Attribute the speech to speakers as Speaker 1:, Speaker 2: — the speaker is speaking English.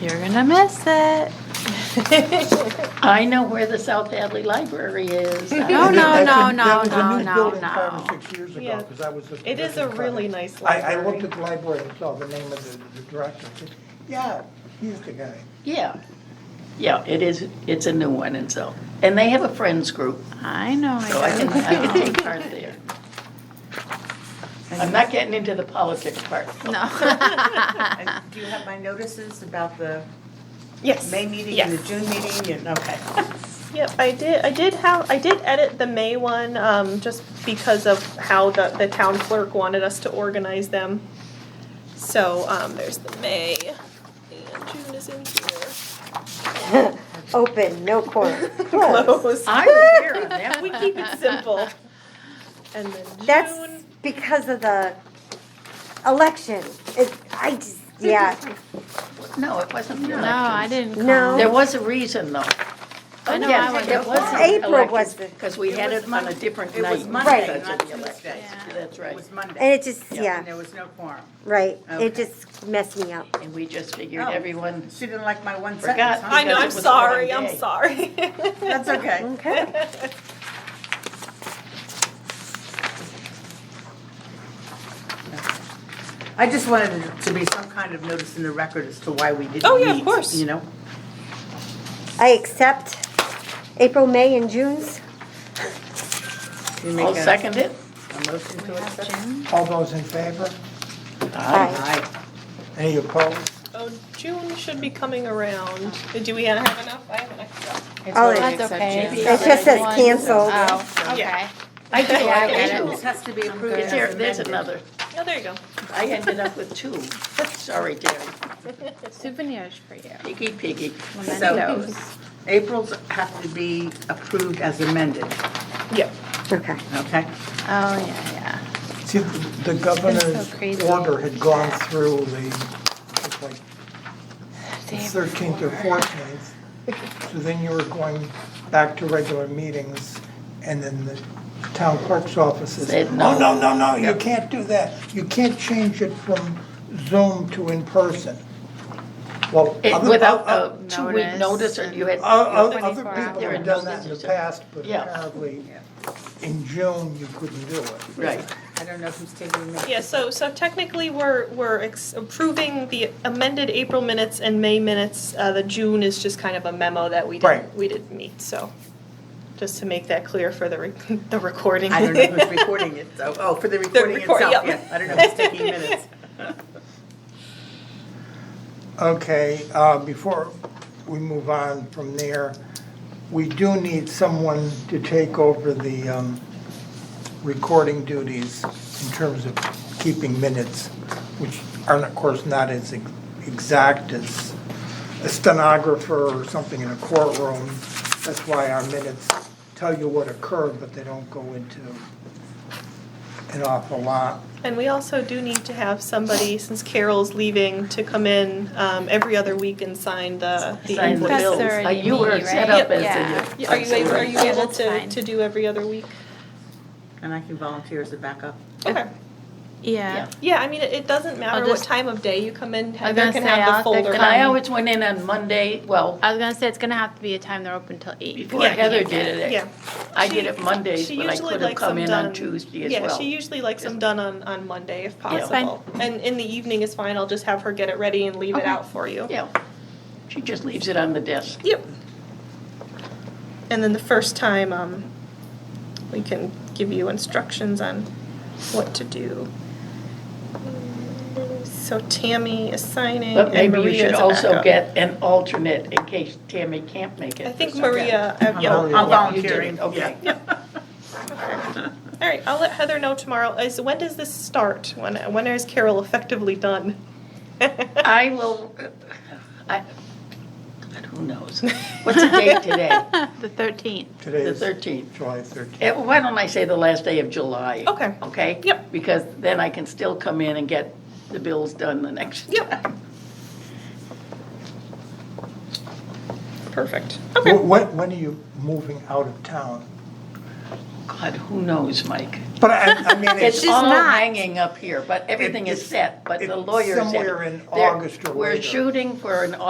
Speaker 1: You're gonna miss it.
Speaker 2: I know where the South Hadley Library is.
Speaker 1: No, no, no, no,
Speaker 3: That was a
Speaker 1: no,
Speaker 3: new
Speaker 1: no,
Speaker 3: building five or
Speaker 1: no.
Speaker 3: six years
Speaker 4: Yeah.
Speaker 3: ago, because I was just.
Speaker 4: It is a really nice
Speaker 3: I, I
Speaker 4: library.
Speaker 3: looked at the library and saw the name of the, the director. Yeah, he's the guy.
Speaker 2: Yeah, yeah, it is, it's a new one and so, and they have a friends group,
Speaker 1: I know,
Speaker 2: so I
Speaker 1: Oh, I
Speaker 2: can,
Speaker 1: know.
Speaker 2: I can take part there. I'm not getting into the politics part.
Speaker 1: No.
Speaker 5: Ah.
Speaker 6: And Do you have my notices about the
Speaker 4: Yes.
Speaker 6: May meeting and the June meeting and, okay.
Speaker 4: Yep, I did, I did have, I did edit the May one, um, just because of how the, the town clerk wanted us to organize them. So, um, there's the May, and June is in here.
Speaker 5: Open, no corner, close.
Speaker 4: Close.
Speaker 2: I was here on that
Speaker 4: We
Speaker 2: one.
Speaker 4: keep it simple. And then June.
Speaker 5: That's because of the election. It, I just, yeah,
Speaker 2: No, it wasn't the
Speaker 1: No,
Speaker 2: elections.
Speaker 1: I didn't
Speaker 5: No.
Speaker 1: call.
Speaker 2: There was a reason though.
Speaker 1: I know,
Speaker 2: Yes,
Speaker 1: I was-
Speaker 2: there was an
Speaker 5: April
Speaker 2: election,
Speaker 5: was the-
Speaker 2: Cause we had it on a different
Speaker 6: It
Speaker 2: night.
Speaker 6: was
Speaker 2: in
Speaker 6: Monday,
Speaker 2: such
Speaker 6: not
Speaker 2: an election.
Speaker 6: Tuesday.
Speaker 2: That's
Speaker 6: It
Speaker 2: right,
Speaker 6: was Monday.
Speaker 5: and it just,
Speaker 6: And
Speaker 5: yeah,
Speaker 6: there was no quorum.
Speaker 5: right.
Speaker 6: Okay.
Speaker 5: It just messed me up.
Speaker 2: and we just figured
Speaker 6: Oh.
Speaker 2: everyone,
Speaker 6: She didn't like my one
Speaker 2: Forgot.
Speaker 6: sentence,
Speaker 4: I
Speaker 6: huh?
Speaker 2: because it
Speaker 4: know, I'm
Speaker 2: was the
Speaker 4: sorry,
Speaker 2: wrong
Speaker 4: I'm
Speaker 2: day.
Speaker 4: sorry.
Speaker 6: That's okay.
Speaker 5: Okay.
Speaker 6: I just wanted it to be some kind of notice in the record as to why we didn't meet.
Speaker 4: Oh, yeah, of course.
Speaker 6: You know?
Speaker 5: I accept April, May, and June's.
Speaker 6: You make
Speaker 2: I'll
Speaker 6: a-
Speaker 2: second it.
Speaker 6: A motion to accept?
Speaker 3: All those in favor?
Speaker 5: Aye.
Speaker 6: Aye.
Speaker 3: Any opposed?
Speaker 4: Oh, June should be coming around. Do we have enough? I have an extra.
Speaker 5: Oh,
Speaker 1: That's okay.
Speaker 2: Maybe
Speaker 5: It just says
Speaker 1: One-
Speaker 5: canceled.
Speaker 1: Oh, okay.
Speaker 2: I do,
Speaker 1: Yeah, I
Speaker 2: I
Speaker 1: get
Speaker 2: do.
Speaker 1: it.
Speaker 6: This has to be approved
Speaker 2: Is there,
Speaker 6: as
Speaker 2: there's
Speaker 6: amended.
Speaker 2: another.
Speaker 4: Oh, there you go.
Speaker 2: I ended up with two. Sorry, Terry.
Speaker 1: Souvenirs for you.
Speaker 2: Piggy, piggy.
Speaker 1: Mementos.
Speaker 6: April's have to be approved as amended,
Speaker 4: Yep.
Speaker 5: Okay.
Speaker 6: okay?
Speaker 1: Oh, yeah, yeah.
Speaker 3: See, the the
Speaker 1: so crazy.
Speaker 3: governor's order had gone through the, it's like thirteenth or fourteenth. So then you were going back to regular meetings, and then the town clerk's office is, "Oh,
Speaker 2: Said
Speaker 3: no,
Speaker 2: no."
Speaker 3: no, no, no, you can't do that. You can't change it from Zoom to in-person. Well,
Speaker 2: It-
Speaker 3: other-
Speaker 2: Without
Speaker 3: o-
Speaker 2: a Uh, two-week
Speaker 1: Notice
Speaker 2: notice, or you had.
Speaker 3: o- o- Other
Speaker 1: 24
Speaker 3: people
Speaker 2: hours.
Speaker 3: have done that in the past, but
Speaker 2: Yeah.
Speaker 3: apparently in June, you couldn't do it.
Speaker 2: Right.
Speaker 6: I don't know who's taking the minutes.
Speaker 4: Yeah, so, so technically, we're, we're ex- approving the amended April minutes and May minutes. Uh, the June is just kind of a memo that we didn't,
Speaker 3: Right.
Speaker 4: we didn't meet, so. Just to make that clear for the, re- the recording.
Speaker 6: I don't know who's recording it, so, oh, for the recording
Speaker 4: record-
Speaker 6: itself,
Speaker 4: yeah.
Speaker 6: yeah. I don't know who's taking minutes.
Speaker 3: Okay, uh, before we move on from there, we do need someone to take over the um, recording duties in terms of keeping minutes, which are, of course, not as ex- exact as a stenographer or something in a courtroom. That's why our minutes tell you what occurred, but they don't go into an awful lot.
Speaker 4: And we also do need to have somebody, since Carol's leaving, to come in, um, every other week and sign the, the
Speaker 2: Sign the
Speaker 1: That's
Speaker 2: bills.
Speaker 4: invoices.
Speaker 1: already
Speaker 2: Uh, You were
Speaker 1: me,
Speaker 2: set
Speaker 1: right?
Speaker 2: up as uh,
Speaker 1: Yeah.
Speaker 2: the.
Speaker 4: Yeah, Are you, able- are you
Speaker 1: Yeah,
Speaker 4: able
Speaker 1: that's
Speaker 4: to,
Speaker 1: fine.
Speaker 4: to do every other week?
Speaker 6: And I can volunteer as a backup.
Speaker 4: Okay.
Speaker 1: Yeah.
Speaker 4: Yeah, I mean, it, it doesn't matter what
Speaker 1: just-
Speaker 4: time of day you come in,
Speaker 1: I was
Speaker 4: Heather
Speaker 1: gonna
Speaker 4: can
Speaker 1: say,
Speaker 4: have the
Speaker 1: I'll-
Speaker 4: folder.
Speaker 2: And I always went in on Monday, well,
Speaker 1: I was gonna say, it's gonna have to be a time they're open till eight.
Speaker 2: before
Speaker 4: Yeah.
Speaker 2: Heather did it.
Speaker 4: Yeah.
Speaker 2: I did
Speaker 4: She-
Speaker 2: it Mondays,
Speaker 4: she
Speaker 2: but I
Speaker 4: usually
Speaker 2: could have
Speaker 4: likes
Speaker 2: come
Speaker 4: them
Speaker 2: in on
Speaker 4: done-
Speaker 2: Tuesday as
Speaker 4: Yeah,
Speaker 2: well.
Speaker 4: she usually likes them done on, on Monday if
Speaker 1: That's fine.
Speaker 4: possible. And in the evening is fine, I'll just have her get it ready and leave it
Speaker 2: Okay.
Speaker 4: out for you.
Speaker 2: Yeah. She just leaves it on the desk.
Speaker 4: Yep. And then the first time, um, we can give you instructions on what to do. So Tammy is signing
Speaker 2: But
Speaker 4: and
Speaker 2: maybe you
Speaker 4: Maria
Speaker 2: should
Speaker 4: is a
Speaker 2: also
Speaker 4: backup.
Speaker 2: get an alternate in case Tammy can't make it.
Speaker 4: I
Speaker 2: for
Speaker 4: think
Speaker 2: some-
Speaker 4: Maria, uh, yeah,
Speaker 3: Maria.
Speaker 6: I'm
Speaker 2: Oh, Yeah, you did
Speaker 6: volunteering,
Speaker 2: it, Okay.
Speaker 6: yeah.
Speaker 4: All right, I'll let Heather know tomorrow. Is when does this start? When when is Carol effectively done?
Speaker 2: I will, I, God, who knows? What's the date today?
Speaker 1: The thirteenth.
Speaker 3: Today
Speaker 2: The
Speaker 3: is
Speaker 2: 13th.
Speaker 3: July 13th.
Speaker 2: Eh, Why don't I say the last day of July?
Speaker 4: Okay.
Speaker 2: Okay?
Speaker 4: Yep.
Speaker 2: Because then I can still come in and get the bills done the next.
Speaker 4: yep. Perfect. Okay.
Speaker 3: Wh- When, when are you moving out of town?
Speaker 2: God, who knows, Mike?
Speaker 3: But I, I mean,
Speaker 2: It's
Speaker 3: it's, it's
Speaker 2: all
Speaker 5: not.
Speaker 2: hanging up here, but everything is
Speaker 3: it's-
Speaker 2: set, but the
Speaker 3: it's
Speaker 2: lawyers. have-
Speaker 3: somewhere in
Speaker 2: they're-
Speaker 3: August or
Speaker 2: We're
Speaker 3: later.
Speaker 2: shooting for an